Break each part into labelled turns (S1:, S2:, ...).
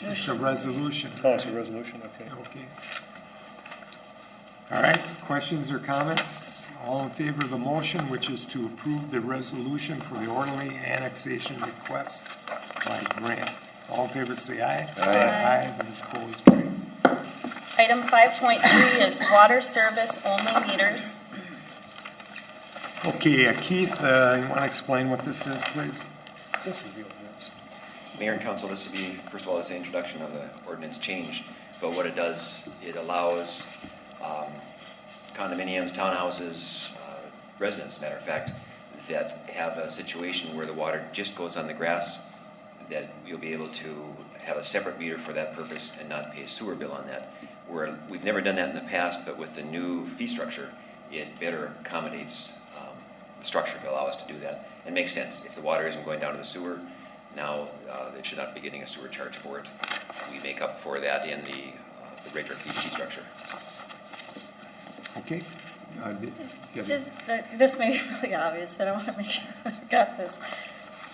S1: It's a resolution,
S2: Oh, it's a resolution, okay.
S1: okay. All right, questions or comments? All in favor of the motion, which is to approve the resolution for the orderly annexation request by Grant. All in favor, say aye. Aye. Aye, those opposed, carried.
S3: Item 5.3 is water service only meters.
S1: Okay, uh, Keith, uh, you want to explain what this is, please?
S2: This is the ordinance.
S4: Mayor and council, this would be, first of all, it's the introduction of the ordinance change, but what it does, it allows um, condominiums, townhouses, uh, residents, matter of fact, that have a situation where the water just goes on the grass, that you'll be able to have a separate meter for that purpose and not pay a sewer bill on that. Where, we've never done that in the past, but with the new fee structure, it better accommodates um, the structure to allow us to do that. It makes sense. If the water isn't going down to the sewer, now uh, it should not be getting a sewer charge for it. We make up for that in the uh, the regular fee fee structure.
S1: Okay? Uh, did- did-
S5: Just, uh, this may be really obvious, but I want to make sure I got this.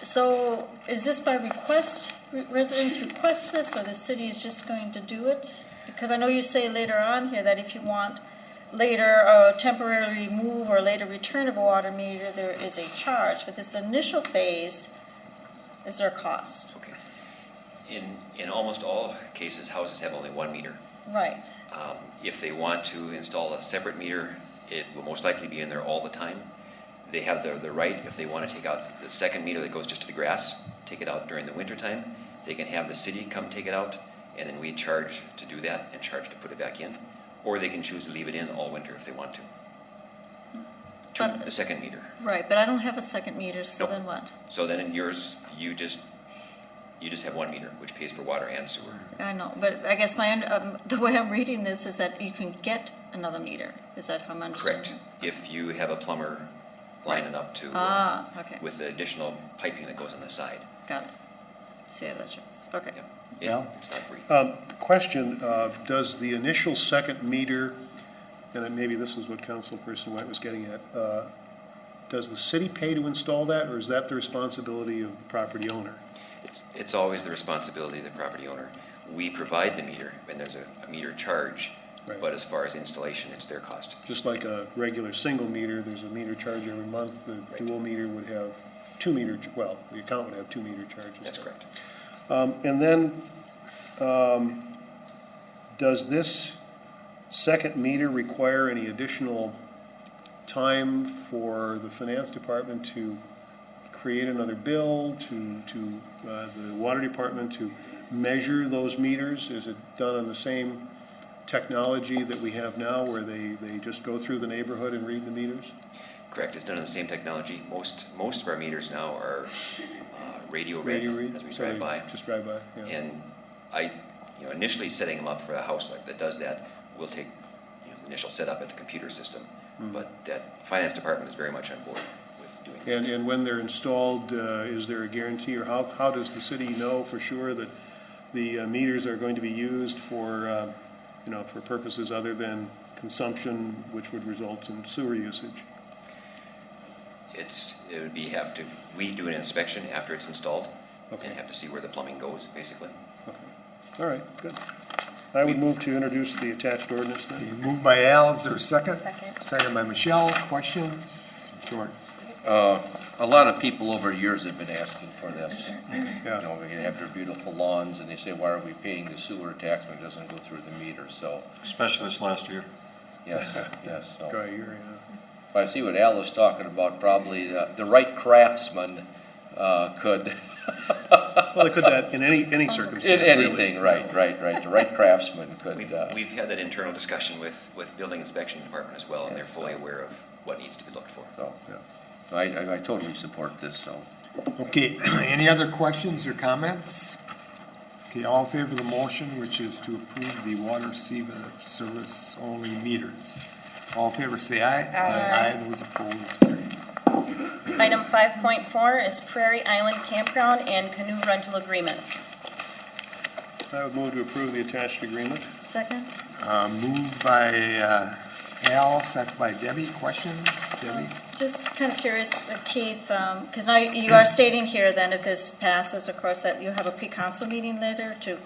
S5: So is this by request, Re- residents request this, or the city is just going to do it? Because I know you say later on here that if you want later uh, temporary remove or later return of a water meter, there is a charge. But this initial phase, is there a cost?
S4: Okay. In, in almost all cases, houses have only one meter.
S5: Right,
S4: Um, If they want to install a separate meter, it will most likely be in there all the time. They have the, the right, if they want to take out the second meter that goes just to the grass, take it out during the wintertime. They can have the city come take it out, and then we charge to do that and charge to put it back in. Or they can choose to leave it in all winter if they want to. To
S5: But-
S4: the second meter.
S5: right, but I don't have a second meter, so
S4: Nope.
S5: then what?
S4: So then in yours, you just, you just have one meter, which pays for water and sewer.
S5: I know, but I guess my, un- um, the way I'm reading this is that you can get another meter. Is that how I'm understanding?
S4: Correct. If you have a plumber lining up to. uh,
S5: Ah, okay,
S4: with the additional piping that goes on the side.
S5: got it. See how that shows, okay.
S4: Yep. It-
S2: Yeah.
S4: It's not free.
S2: Um, Question, uh, does the initial second meter, and then maybe this is what Councilperson White was getting at, uh, does the city pay to install that, or is that the responsibility of the property owner?
S4: It's, it's always the responsibility of the property owner. We provide the meter, and there's a, a meter charge,
S2: Right.
S4: but as far as installation, it's their cost.
S2: Just like a regular single meter, there's a meter charge every month, the dual meter would have two meter, ch- well, the account would have two meter charges.
S4: That's correct.
S2: Um, And then, um, does this second meter require any additional time for the finance department to create another bill, to, to uh, the water department to measure those meters? Is it done on the same technology that we have now, where they, they just go through the neighborhood and read the meters?
S4: Correct, it's done on the same technology. Most, most of our meters now are uh, radio read
S2: Radio read?
S4: as we
S2: So they
S4: drive by.
S2: Just drive by, yeah.
S4: And I, you know, initially setting them up for a house like that does that will take, you know, initial setup at the computer system.
S2: Mm-hmm.
S4: But that finance department is very much on board with doing that.
S2: And, and when they're installed, uh, is there a guarantee, or how, how does the city know for sure that the uh, meters are going to be used for, uh, you know, for purposes other than consumption, which would result in sewer usage?
S4: It's, it would be have to, we do an inspection after it's installed
S2: Okay.
S4: and have to see where the plumbing goes, basically.
S2: All right, good. I would move to introduce the attached ordinance then.
S1: Okay, Moved by Al, is there a second?
S3: Second.
S1: Second by Michelle, questions? George?
S6: Uh, A lot of people over the years have been asking for this. You
S2: Yeah.
S6: know, they have their beautiful lawns, and they say, why are we paying the sewer tax when it doesn't go through the meter? So,
S7: Especially this last year.
S6: yes, yes, so.
S2: Dry year,
S6: But I see what Al is talking about, probably the the right craftsman uh, could,
S2: yeah. Well, they could that in any, any
S6: in
S2: circumstance, really.
S6: anything, right, right, right, the right craftsman could,
S4: We've,
S6: uh,
S4: we've had that internal discussion with, with building inspection department as well, and they're fully aware of what needs to be looked for.
S6: so.
S2: Yeah.
S6: So I- I I totally support this, so.
S1: Okay, any other questions or comments? Okay, all in favor of the motion, which is to approve the water receiver service only meters. All in favor, say aye.
S3: Aye.
S1: Aye, those opposed, carried.
S3: Item 5.4 is Prairie Island Campground and canoe rental agreements.
S2: I would move to approve the attached agreement.
S5: Second?
S1: Uh, Moved by uh, Al, second by Debbie, questions? Debbie?
S5: Just kind of curious, uh, Keith, because now you you are stating here then if this passes, of course, that you have a pre-council meeting later to